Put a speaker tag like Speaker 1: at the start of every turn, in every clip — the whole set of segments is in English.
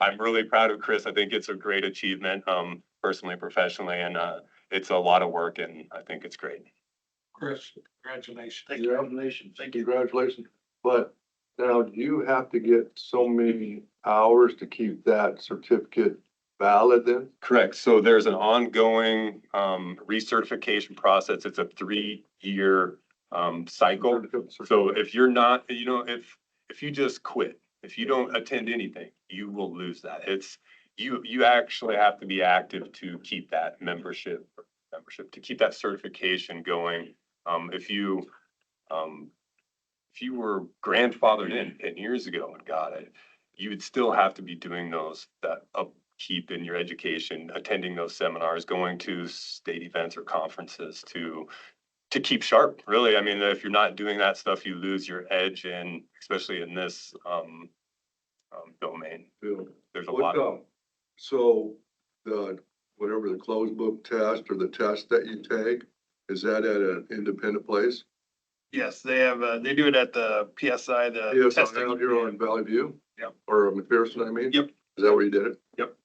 Speaker 1: I'm really proud of Chris. I think it's a great achievement, um, personally, professionally, and, uh, it's a lot of work and I think it's great.
Speaker 2: Chris, congratulations.
Speaker 3: Thank you. Congratulations. Thank you. Congratulations. But now you have to get so many hours to keep that certificate valid then?
Speaker 1: Correct. So there's an ongoing, um, recertification process. It's a three-year, um, cycle. So if you're not, you know, if, if you just quit, if you don't attend anything, you will lose that. It's, you, you actually have to be active to keep that membership, membership, to keep that certification going. Um, if you, um, if you were grandfathered in ten years ago and got it, you would still have to be doing those, that upkeep in your education, attending those seminars, going to state events or conferences to, to keep sharp, really. I mean, if you're not doing that stuff, you lose your edge and especially in this, um, um, domain. There's a lot.
Speaker 3: What,
Speaker 1: of
Speaker 3: um, so the, whatever the closed book test or the test that you take, is that at an independent place?
Speaker 4: Yes, they have, uh, they do it at the PSI, the
Speaker 3: Yes, out
Speaker 4: Uh, testing.
Speaker 3: here on Valley View?
Speaker 4: Yep.
Speaker 3: Or McPherson, I mean?
Speaker 4: Yep.
Speaker 3: Is that where you did it?
Speaker 4: Yep.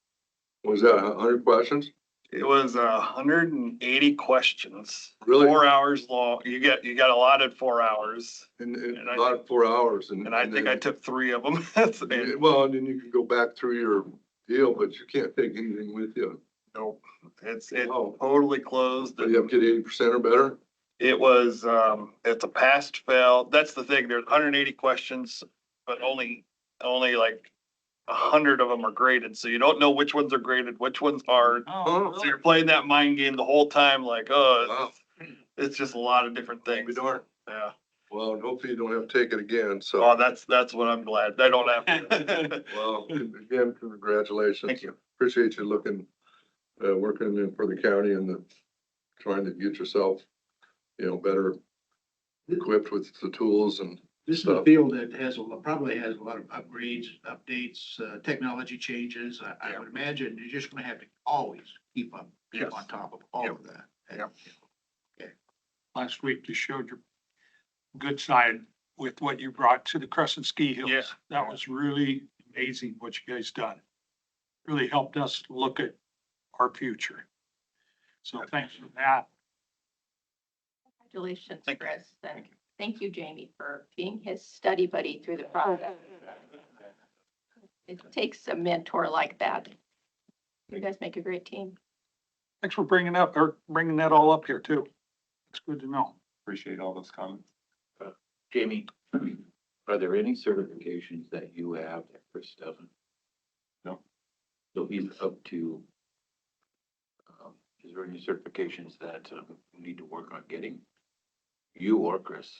Speaker 3: Was that a hundred questions?
Speaker 4: It was a hundred and eighty questions,
Speaker 3: Really?
Speaker 4: four hours long. You get, you got allotted four hours.
Speaker 3: And,
Speaker 4: And I-
Speaker 3: about four hours and.
Speaker 4: And I think I
Speaker 3: then-
Speaker 4: took three of them. That's
Speaker 3: Yeah,
Speaker 4: it.
Speaker 3: Uh, Well, and then you can go back through your deal, but you can't take anything with you.
Speaker 4: Nope. It's, it's
Speaker 3: Oh.
Speaker 4: totally closed.
Speaker 3: Do you have to get eighty percent or better?
Speaker 4: It was, um, it's a past fail. That's the thing. There's hundred and eighty questions, but only, only like a hundred of them are graded. So you don't know which ones are graded, which ones aren't.
Speaker 3: Oh,
Speaker 4: So you're playing that mind game the whole time, like, oh,
Speaker 3: Wow.
Speaker 4: it's- it's just a lot of different
Speaker 3: We
Speaker 4: things.
Speaker 3: darn.
Speaker 4: Yeah.
Speaker 3: Well, and hopefully you don't have to take it again,
Speaker 4: Oh,
Speaker 3: so,
Speaker 4: that's, that's what I'm glad. I don't have to.
Speaker 3: well, again, congratulations.
Speaker 4: Thank you.
Speaker 3: Appreciate you looking, uh, working in for the county and the, trying to get yourself, you know, better equipped with the tools and,
Speaker 5: This is a field that has, a lo- probably has a lot of upgrades, updates, uh, technology changes. I, I would imagine you're just gonna have to always keep up,
Speaker 4: Yes.
Speaker 5: keep on top of all of that.
Speaker 4: Yep.
Speaker 2: Last week you showed your good side with what you brought to the Crescent Ski Hills.
Speaker 4: Yeah.
Speaker 2: That was really amazing what you guys done. Really helped us look at our future. So thanks for that.
Speaker 6: Congratulations,
Speaker 4: Thank you.
Speaker 6: Chris. and Thank you, Jamie, for being his study buddy through the process. It takes a mentor like that. You guys make a great team.
Speaker 2: Thanks for bringing up, or bringing that all up here too. It's good to know.
Speaker 1: Appreciate all those comments.
Speaker 7: Jamie, are there any certifications that you have that Chris doesn't?
Speaker 1: No.
Speaker 7: So he's up to, um, is there any certifications that um, we need to work on getting? You or Chris?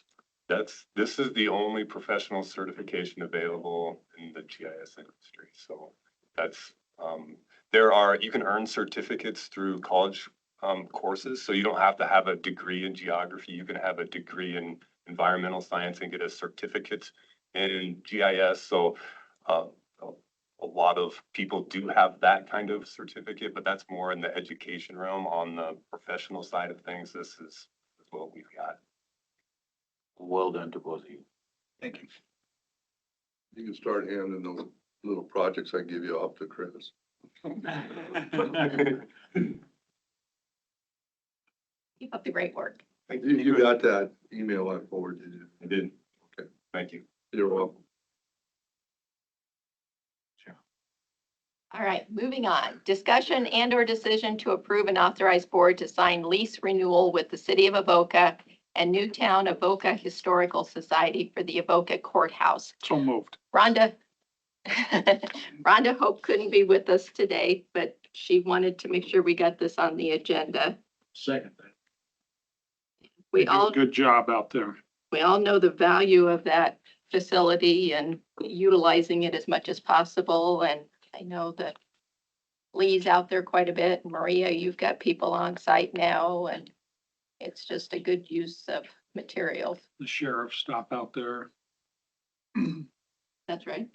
Speaker 1: That's, this is the only professional certification available in the GIS industry. So that's, um, there are, you can earn certificates through college, um, courses. So you don't have to have a degree in geography. You can have a degree in environmental science and get a certificate in GIS. So, uh, a a lot of people do have that kind of certificate, but that's more in the education realm. On the professional side of things, this is what we've got.
Speaker 7: Well done to both of you.
Speaker 4: Thank you.
Speaker 3: you can start handing those little projects I give you off to Chris.
Speaker 6: Keep up the great work.
Speaker 3: You, you got that email I forwarded you.
Speaker 1: I did.
Speaker 3: Okay.
Speaker 1: Thank you.
Speaker 3: You're welcome.
Speaker 6: All right, moving on. Discussion and or decision to approve and authorize board to sign lease renewal with the city of Avoca and Newtown Avoca Historical Society for the Avoca Courthouse.
Speaker 2: So moved.
Speaker 6: Rhonda, Rhonda Hope couldn't be with us today, but she wanted to make sure we got this on the agenda.
Speaker 5: Second,
Speaker 2: You
Speaker 6: We
Speaker 2: did a
Speaker 6: all,
Speaker 2: Good job out there.
Speaker 6: we all know the value of that facility and utilizing it as much as possible. And I know that Lee's out there quite a bit. Maria, you've got people on site now and it's just a good use of materials.
Speaker 2: The sheriff stop out there.
Speaker 6: That's right.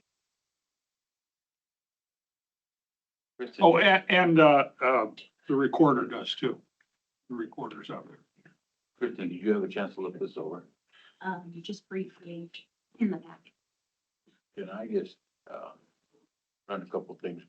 Speaker 7: Chris, did
Speaker 2: Oh,
Speaker 7: you-
Speaker 2: and, and, uh, uh, the recorder does too. The recorder's out there.
Speaker 7: Kristen, did you have a chance to look this over?
Speaker 8: um, just briefly in the back.
Speaker 7: Can I just, uh, on a couple things.